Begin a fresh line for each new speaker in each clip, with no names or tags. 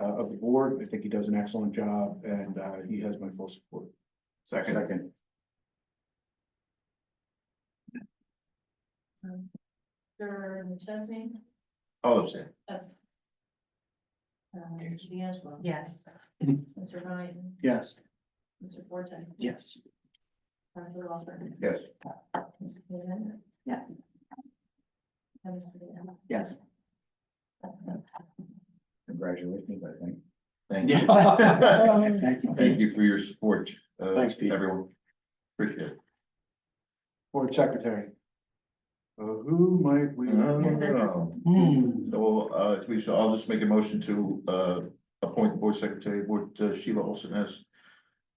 uh, of the board. I think he does an excellent job and, uh, he has my full support. Second.
Second.
Mr. McChesney?
All of them.
Yes. Uh, Mr. D'Angelo?
Yes.
Mr. Ryan?
Yes.
Mr. Forte?
Yes.
Dr. Walter?
Yes.
Mrs. Leland?
Yes.
And Mr. Leland?
Yes.
Congratulations, I think.
Yeah.
Thank you. Thank you for your support. uh,
Thanks, Pete.
Everyone. Appreciate it.
Board secretary. Uh, who might we?
Um,
Hmm.
So, uh, we, so I'll just make a motion to, uh, appoint the board secretary, board uh, Sheila Olson as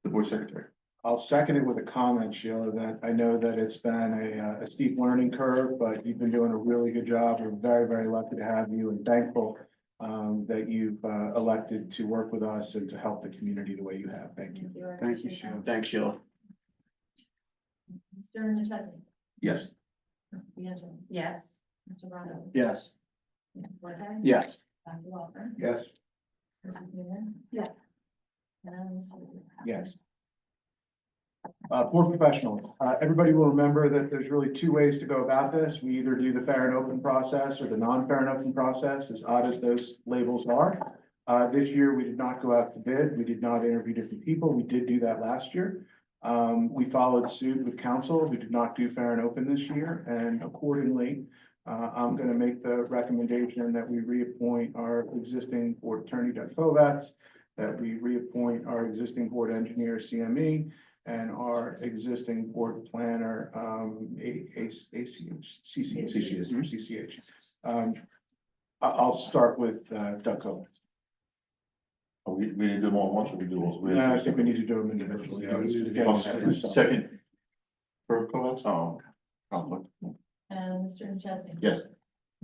the board secretary.
I'll second it with a comment, Sheila, that I know that it's been a, uh, a steep learning curve, but you've been doing a really good job. We're very, very lucky to have you and thankful um, that you've, uh, elected to work with us and to help the community the way you have. Thank you.
I
Thank you,
appreciate
Sheila.
that.
Thanks, Sheila.
Mr. McChesney?
Yes.
Mrs. D'Angelo?
Yes.
Mr. Ryan?
Yes.
Mr. Forte?
Yes.
Dr. Walter?
Yes.
Mrs. Leland?
Yes.
And Mr. Leland?
Yes. Uh, board professional, uh, everybody will remember that there's really two ways to go about this. We either do the fair and open process or the non-fair and open process, as odd as those labels are. Uh, this year, we did not go out to bid. We did not interview different people. We did do that last year. Um, we followed suit with council. We did not do fair and open this year, and accordingly, uh, I'm gonna make the recommendation that we reappoint our existing board attorney, Doug Kovats, that we reappoint our existing board engineer, CME, and our existing board planner, um, A- A- ACH, CCH.
CCH.
CCH. Um, I, I'll start with, uh, Doug Kovats.
Oh, We, we didn't do them all at once, or we do all.
No, Uh, I think we need to do them individually. I was getting-
Second. For Coates? Oh. conflict.
And Mr. McChesney?
Yes.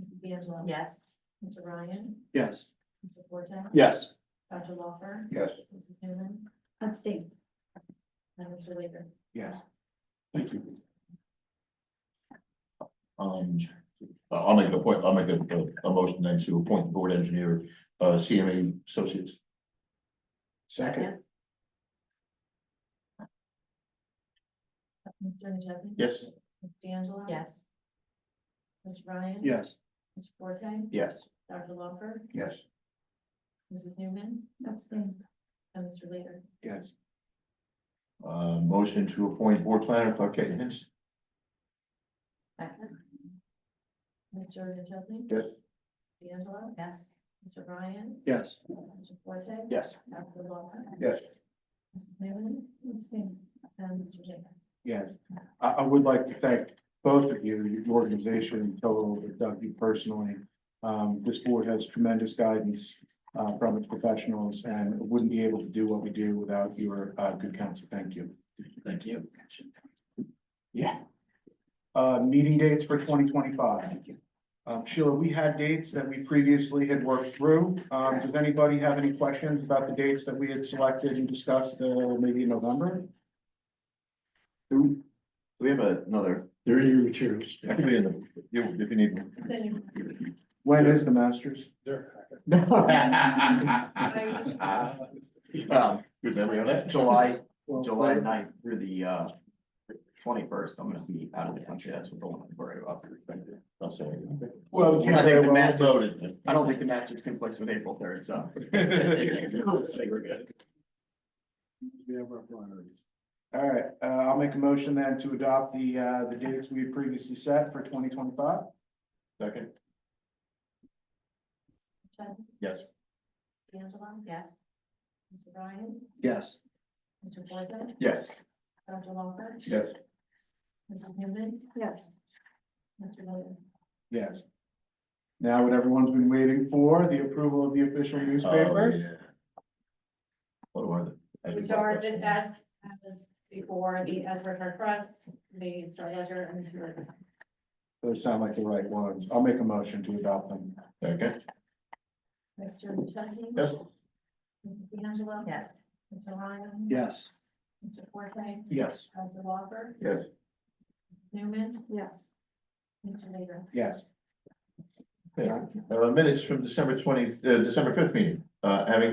Mrs. D'Angelo?
Yes.
Mr. Ryan?
Yes.
Mr. Forte?
Yes.
Dr. Walter?
Yes.
Mrs. Newman?
Abstain.
And Mr. Leader?
Yes. Thank you.
Um, I'll make a point, I'll make a, a- a motion then to appoint the board engineer, uh, CMA Associates.
Second,
Mr. McChesney?
Yes.
Ms. D'Angelo?
Yes.
Mr. Ryan?
Yes.
Mr. Forte?
Yes.
Dr. Lawfer?
Yes.
Mrs. Newman? Abstain. And Mr. Leader?
yes.
Uh, motion to appoint board planner Clark Caton Hints.
Mr. McChesney?
Yes.
D'Angelo?
Yes.
Mr. Ryan?
Yes.
Mr. Forte?
Yes.
Dr. Lawfer?
Yes.
Mrs. Newman? Abstain. And Mr. Leader?
Yes, I, I would like to thank both of you, your organization in total, but Doug, you personally. Um, this board has tremendous guidance, uh, from its professionals and wouldn't be able to do what we do without your, uh, good counsel. Thank you.
Thank you.
Yeah. Uh, meeting dates for twenty twenty-five. Um, Sheila, we had dates that we previously had worked through. Um, does anybody have any questions about the dates that we had selected and discussed, uh, maybe in November?
Do
We have another.
They're in your materials.
I can be in the, you- if you need. me.
It's in your-
When is the Masters?
Um,
Good memory on that.
July, July ninth through the uh twenty-first, I'm gonna be out of the country, that's what the one I'm worried about.
I'll say it.
Well,
I think the Masters,
Voted.
I don't think the Masters conflicts with April third, so. Let's say we're good.
All right, uh, I'll make a motion then to adopt the, uh, the dates we had previously set for twenty twenty-five.
Second,
McChesney?
yes.
D'Angelo?
Yes.
Mr. Ryan?
Yes.
Mr. Forte?
Yes,
Dr. Lawfer?
Yes.
Mrs. Newman?
Yes.
Mr. Leader?
Yes. Now what everyone's been waiting for, the approval of the official newspapers.
Oh, What are they?
Which are the S as before the Edward Hart Press, the Star Ledger and the Herald.
Those sound like the right ones. I'll make a motion to adopt them.
Okay,
Mr. Chesney.
yes,
Mrs. D'Angelo.
Yes.
Mr. Ryan.
Yes.
Mr. Forte.
Yes.
Dr. Walker.
yes.
Newman.
Yes.
Mr. Leader.
Yes.
Okay. Uh, minutes from December twenty, uh, December fifth meeting, uh, having